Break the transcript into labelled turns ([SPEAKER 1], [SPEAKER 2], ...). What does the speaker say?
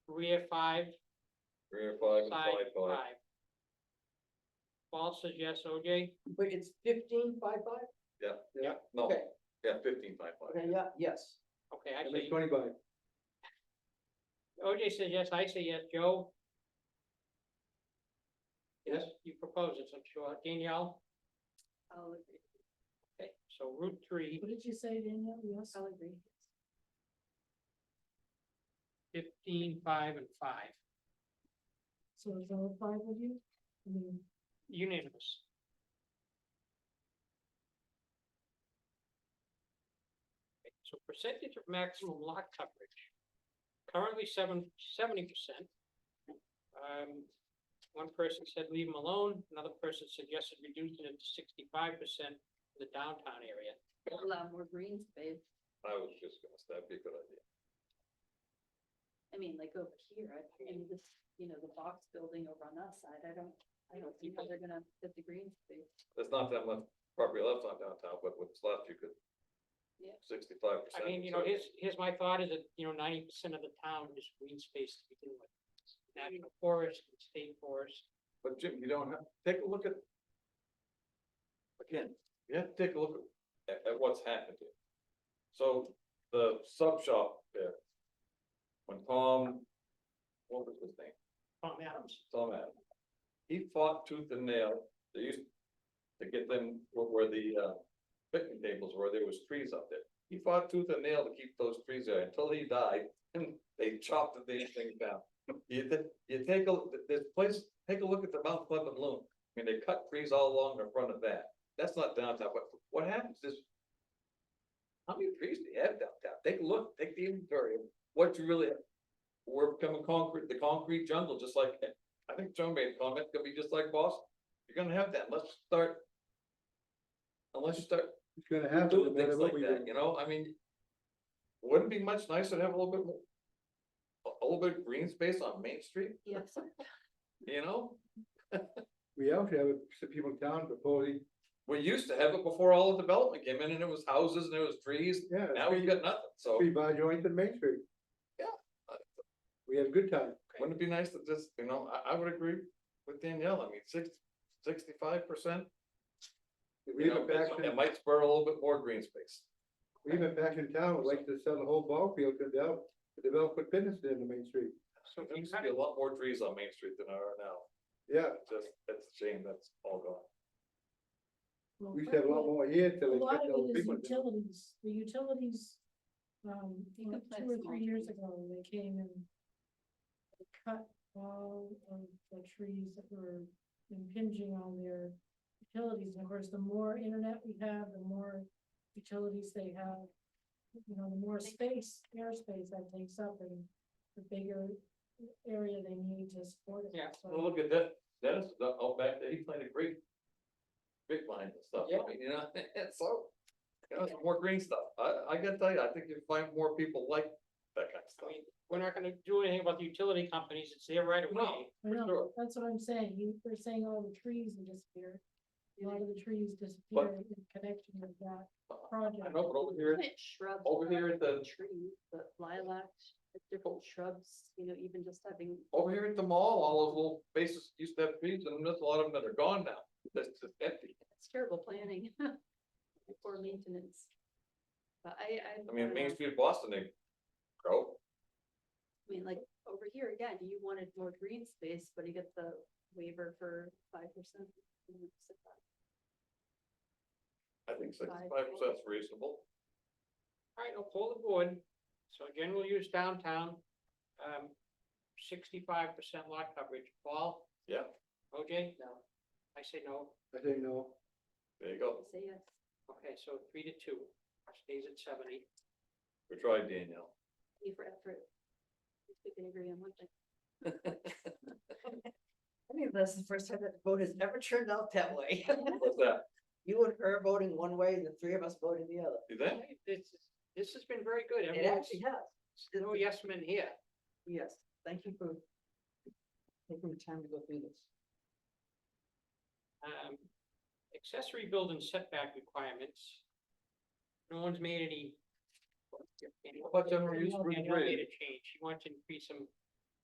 [SPEAKER 1] rear five,
[SPEAKER 2] rear five and
[SPEAKER 1] side
[SPEAKER 2] side
[SPEAKER 1] five.
[SPEAKER 2] five,
[SPEAKER 1] Paul says yes, OJ?
[SPEAKER 3] But it's fifteen five five?
[SPEAKER 2] yeah.
[SPEAKER 1] Yeah.
[SPEAKER 2] No,
[SPEAKER 3] Okay,
[SPEAKER 2] yeah, fifteen five five.
[SPEAKER 3] okay, yeah, yes.
[SPEAKER 1] Okay,
[SPEAKER 4] That
[SPEAKER 1] I
[SPEAKER 4] makes
[SPEAKER 1] say,
[SPEAKER 4] twenty-five.
[SPEAKER 1] OJ says yes, I say yes, Joe? Yes, you propose it, so I'm sure, Danielle?
[SPEAKER 5] I'll agree.
[SPEAKER 1] Okay, so Route three,
[SPEAKER 5] What did you say, Danielle? Yes. I'll agree.
[SPEAKER 1] fifteen, five, and five,
[SPEAKER 5] So is all five of you? I mean,
[SPEAKER 1] unanimous. Okay, So percentage of maximum lot coverage, currently seven, seventy percent. Um, one person said leave them alone, another person suggested reducing it to sixty-five percent of the downtown area.
[SPEAKER 5] allow more green space.
[SPEAKER 2] I was just gonna, say that'd be a good idea.
[SPEAKER 5] I mean, like over here, I mean, this, you know, the box building over on that side, I don't, I don't see how they're gonna fit the green space.
[SPEAKER 2] There's not that much property left on downtown, but what's left, you could.
[SPEAKER 5] Yeah.
[SPEAKER 2] Sixty-five percent.
[SPEAKER 1] I mean, you know, here's, here's my thought is that, you know, ninety percent of the town is green space to begin with. National forest, state forest,
[SPEAKER 2] But Jim, you don't have, take a look at. Again, you have to take a look at, at what's happened here. So the sub shop there. When Tom, what was his name?
[SPEAKER 1] Tom Adams.
[SPEAKER 2] Tom Adams. He fought tooth and nail, they used to get them where- where the uh picnic tables were, there was trees up there. He fought tooth and nail to keep those trees there until he died, and they chopped the damn thing down. You ta- you take a, th- this place, take a look at the Mount Pleasant Loom, I mean, they cut trees all along in front of that, that's not downtown, but what happens is. How many trees do you have downtown? Take a look, take the inventory of what you really have. We're becoming concrete, the concrete jungle, just like I think Joe made a comment, it's gonna be just like Boston, you're gonna have that, let's start. Unless you start
[SPEAKER 4] It's gonna happen. no
[SPEAKER 2] doing
[SPEAKER 4] matter
[SPEAKER 2] things
[SPEAKER 4] what
[SPEAKER 2] like
[SPEAKER 4] we
[SPEAKER 2] that,
[SPEAKER 4] do.
[SPEAKER 2] you know, I mean. Wouldn't it be much nicer to have a little bit more. A, a little bit of green space on Main Street,
[SPEAKER 5] Yes.
[SPEAKER 2] you know,
[SPEAKER 4] We also have some people in town proposing,
[SPEAKER 2] we used to have it before all the development came in and it was houses and it was trees,
[SPEAKER 4] yeah,
[SPEAKER 2] now we've got nothing, so.
[SPEAKER 4] three bar joints in Main Street.
[SPEAKER 2] Yeah.
[SPEAKER 4] We had a good time.
[SPEAKER 2] Wouldn't it be nice to just, you know, I, I would agree with Danielle, I mean, six, sixty-five percent,
[SPEAKER 4] We
[SPEAKER 2] you
[SPEAKER 4] have
[SPEAKER 2] know,
[SPEAKER 4] a back,
[SPEAKER 2] it it
[SPEAKER 4] in-
[SPEAKER 2] might spur a little bit more green space.
[SPEAKER 4] we have a back in town, would like to sell the whole ball field to develop, to develop put business in the Main Street.
[SPEAKER 1] So
[SPEAKER 2] There
[SPEAKER 1] you
[SPEAKER 2] used to be a lot more trees on Main Street than there are now.
[SPEAKER 4] Yeah,
[SPEAKER 2] Just, that's a shame, that's all gone.
[SPEAKER 5] Well,
[SPEAKER 4] we used to have a lot more here
[SPEAKER 6] A
[SPEAKER 4] till. they
[SPEAKER 6] lot
[SPEAKER 4] cut
[SPEAKER 6] of
[SPEAKER 4] those
[SPEAKER 6] it is
[SPEAKER 4] people down.
[SPEAKER 6] utilities, the utilities, um,
[SPEAKER 5] You
[SPEAKER 6] like
[SPEAKER 5] can plant
[SPEAKER 6] two or
[SPEAKER 5] small
[SPEAKER 6] three years
[SPEAKER 5] trees.
[SPEAKER 6] ago, they came and they cut all of the trees that were impinging on their utilities, and of course, the more internet we have, the more utilities they have. You know, the more space, airspace that takes up and the bigger area they need to support it.
[SPEAKER 1] Yeah,
[SPEAKER 6] So-
[SPEAKER 2] Well, look at that, Dennis, is out out back there, he planted great. Big vines and stuff,
[SPEAKER 1] Yeah.
[SPEAKER 2] I mean, you know, and so, you know, some more green stuff, I, I gotta tell you, I think you find more people like that kind of
[SPEAKER 1] I
[SPEAKER 2] stuff.
[SPEAKER 1] mean, we're not gonna do anything about the utility companies, it's their right of way.
[SPEAKER 2] No.
[SPEAKER 6] I
[SPEAKER 2] for sure.
[SPEAKER 6] know, that's what I'm saying, you, they're saying all the trees will disappear. A lot of the trees
[SPEAKER 2] But-
[SPEAKER 6] disappear in connection with that
[SPEAKER 2] Uh,
[SPEAKER 6] project.
[SPEAKER 2] I know, but over here,
[SPEAKER 5] Plant Shrubs.
[SPEAKER 2] over here at the-
[SPEAKER 5] Trees, but lilacs, different shrubs, you know, even just having
[SPEAKER 2] over here at the mall, all those little bases used to have trees, and there's a lot of them that are gone now, that's just empty.
[SPEAKER 5] It's terrible planning. Poor maintenance. But I, I.
[SPEAKER 2] I mean,
[SPEAKER 5] don't
[SPEAKER 2] Main
[SPEAKER 5] know.
[SPEAKER 2] Street of Boston, they grow,
[SPEAKER 5] I mean, like, over here, again, you wanted more green space, but you get the waiver for five percent.
[SPEAKER 2] I think sixty-five percent's reasonable.
[SPEAKER 1] All right, I'll pull the board, so again, we'll use downtown, um, sixty-five percent lot coverage, Paul?
[SPEAKER 2] Yeah.
[SPEAKER 1] OJ?
[SPEAKER 5] No.
[SPEAKER 1] I say no,
[SPEAKER 4] I say no,
[SPEAKER 2] There you go,
[SPEAKER 5] Say yes.
[SPEAKER 1] okay, so three to two, stays at seventy,
[SPEAKER 2] we tried Danielle.
[SPEAKER 5] pay for effort. If we can agree on one thing.
[SPEAKER 3] I mean, that's the first time that the vote has ever turned out that way.
[SPEAKER 2] What's that,
[SPEAKER 3] You and her voting one way and the three of us voting the other.
[SPEAKER 2] you think?
[SPEAKER 1] Hey, this, is- this has been very good,
[SPEAKER 3] It
[SPEAKER 1] everyone's,
[SPEAKER 3] actually has.
[SPEAKER 1] there's no yes men here.
[SPEAKER 3] Yes, thank you for taking the time to go through this.
[SPEAKER 1] Um, accessory building setback requirements. No one's made any.
[SPEAKER 2] about general use
[SPEAKER 1] Danielle-
[SPEAKER 2] for the
[SPEAKER 1] Danielle
[SPEAKER 2] grade?
[SPEAKER 1] made a change, she wants to increase them